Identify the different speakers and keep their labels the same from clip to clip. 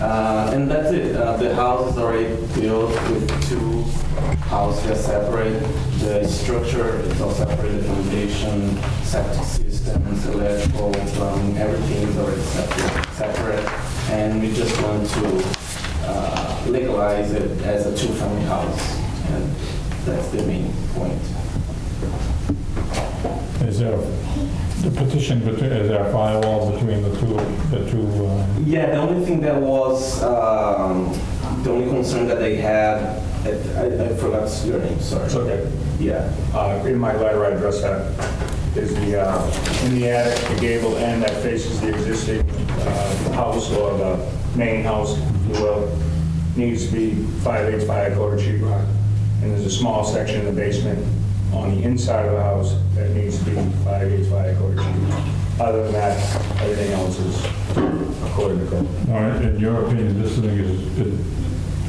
Speaker 1: Uh, and that's it. Uh, the house is already built with two houses separate. The structure is all separate. The foundation, septic systems, electrical, plumbing, everything is already separate. separate. And we just want to uh, legalize it as a two-family house. And that's the main point.
Speaker 2: Is there, the petition, between- is there a firewall between the two, the two, um,
Speaker 1: Yeah, the only thing that was, um, the only concern that they had, I, I forgot your name, sorry.
Speaker 3: It's okay.
Speaker 1: Yeah.
Speaker 3: Uh, In my letter, I addressed that, is the, uh, in the attic, the gable end that faces the existing uh, house or the main house, if you will, needs to be five eighths by a quarter sheet rock. And there's a small section in the basement on the inside of the house that needs to be five eighths by a quarter sheet rock. Other than that, everything else is according to code.
Speaker 2: all right, in your opinion, this thing is, it-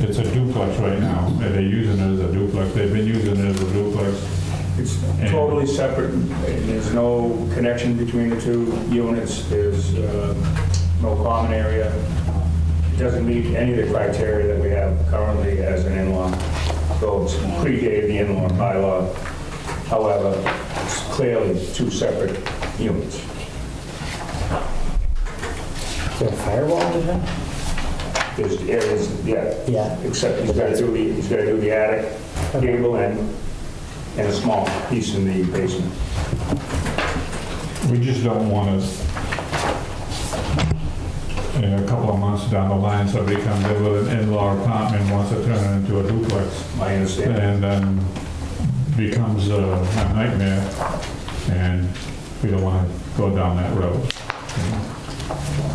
Speaker 2: it's a duplex right now, and they're using it as a duplex, they've been using it as a duplex.
Speaker 3: It's totally separate, and there's no connection between the two units, there's uh, no common area. It doesn't meet any of the criteria that we have currently as an in-law, though it's predated the in-law bylaw. However, it's clearly two separate units.
Speaker 4: Is there a firewall in there?
Speaker 3: There's areas, yeah,
Speaker 4: Yeah.
Speaker 3: except he's got to do the, he's got to do the attic, gable end, and a small piece in the basement.
Speaker 2: We just don't want us, in a couple of months down the line, somebody comes in with an in-law apartment, wants to turn it into a duplex,
Speaker 3: I understand.
Speaker 2: and then becomes a a nightmare, and we don't want to go down that road.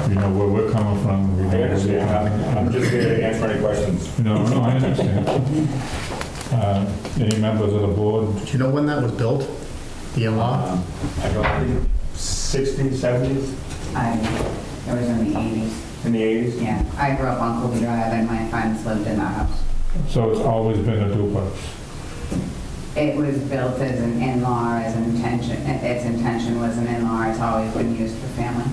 Speaker 2: You know where we're coming from. we know
Speaker 3: I
Speaker 2: where we're
Speaker 3: understand, I'm- I'm
Speaker 2: coming
Speaker 3: just here to answer any questions.
Speaker 2: from. No, no, I understand. Uh, Any members of the board?
Speaker 5: Do you know when that was built? The in-law?
Speaker 3: Um, I don't think, 60s, 70s,
Speaker 6: I, it was in the eighties,
Speaker 3: in the 80s?
Speaker 6: yeah. I grew up on Colby Drive and my friends lived in that house.
Speaker 2: So it's always been a duplex.
Speaker 6: It was built as an in-law, as an intention, its intention was an in-law, it's always been used for family.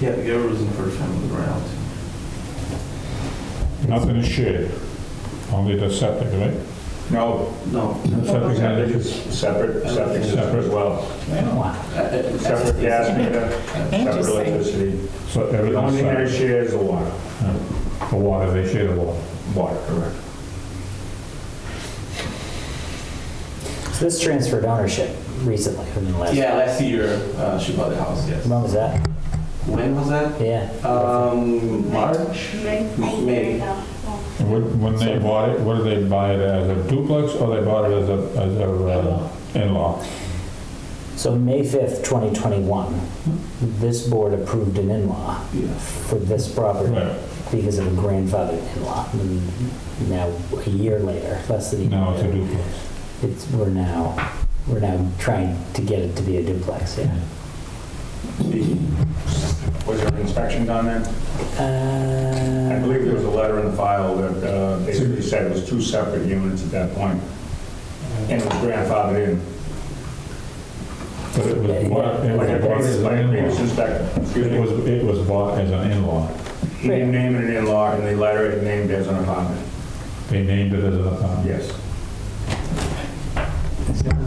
Speaker 1: Yeah, the girl was in first family round.
Speaker 2: Nothing is shared, only the septic, right?
Speaker 3: No,
Speaker 1: No.
Speaker 2: The septic
Speaker 3: septic
Speaker 2: tank
Speaker 3: is
Speaker 2: is
Speaker 3: separate, septic system as well.
Speaker 1: Uh,
Speaker 3: Separate gas meter, separate
Speaker 4: Interesting.
Speaker 3: electricity.
Speaker 2: So
Speaker 3: The
Speaker 2: everything's
Speaker 3: only thing they
Speaker 2: separate.
Speaker 3: share is the water.
Speaker 2: The water, they share the water.
Speaker 3: Water, correct.
Speaker 4: So this transferred ownership recently, within the last,
Speaker 1: Yeah, last year uh, she bought the house. Yes.
Speaker 4: when was that?
Speaker 1: When was that?
Speaker 4: Yeah.
Speaker 1: Um, March. May.
Speaker 2: And When when they bought it, what did they buy it as, a duplex, or they bought it as a, as a uh, in-law?
Speaker 4: So May 5th, 2021, this board approved an in-law
Speaker 1: Yeah.
Speaker 4: for this property
Speaker 2: Right,
Speaker 4: because of a grandfathered in-law. And Now, a year later, less than a year.
Speaker 2: now it's a
Speaker 4: later,
Speaker 2: duplex.
Speaker 4: It's, we're now, we're now trying to get it to be a duplex, yeah.
Speaker 3: Was there an inspection done then? I
Speaker 4: Uh,
Speaker 3: believe there was a letter in the file that uh, basically said it was two separate units at that point, and it was grandfathered in.
Speaker 2: But it was bought, it
Speaker 3: Like a
Speaker 2: was bought
Speaker 3: previous-
Speaker 2: as
Speaker 3: like a
Speaker 2: an
Speaker 3: previous
Speaker 2: in-law.
Speaker 3: inspector, excuse
Speaker 2: It
Speaker 3: me.
Speaker 2: was, it was bought as an in-law.
Speaker 3: He didn't name it an in-law, and the letter it named as an apartment.
Speaker 2: They named it as an apartment.
Speaker 3: Yes.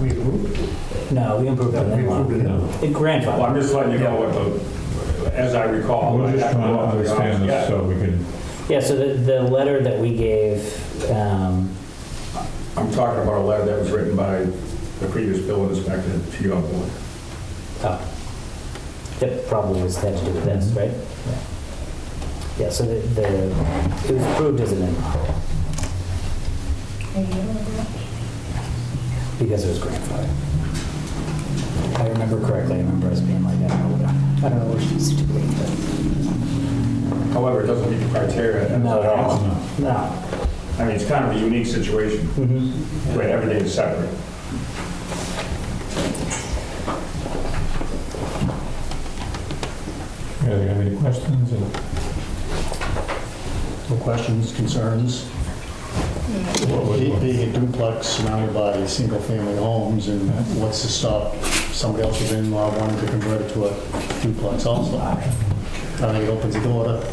Speaker 5: We approved
Speaker 4: No, we improved an in-law.
Speaker 5: it.
Speaker 2: No.
Speaker 4: It
Speaker 3: Well,
Speaker 4: grandfathered,
Speaker 3: I'm just letting you know what the, as I recall.
Speaker 2: We're just trying to understand
Speaker 3: Yeah.
Speaker 2: this so we can,
Speaker 4: yeah, so the, the letter that we gave, um,
Speaker 3: I'm talking about a letter that was written by the previous building inspector to your board.
Speaker 4: Oh. That probably was had to do with this, right? Yeah. Yeah, so the, the, it was approved as an in-law because it was grandfathered. If I remember correctly, I remember us being like, I don't know what, I don't know what she's doing, but.
Speaker 3: However, it doesn't meet the criteria.
Speaker 4: Not at all. No.
Speaker 3: I mean, it's kind of a unique situation
Speaker 2: Mm-hmm.
Speaker 3: where everything is separate.
Speaker 2: yeah, do you have any questions? or-
Speaker 5: No questions, concerns?
Speaker 2: What was-
Speaker 5: Be- Being a duplex surrounded by single-family homes, and what's to stop somebody else's in-law wanting to convert it to a duplex also? I think it opens the door to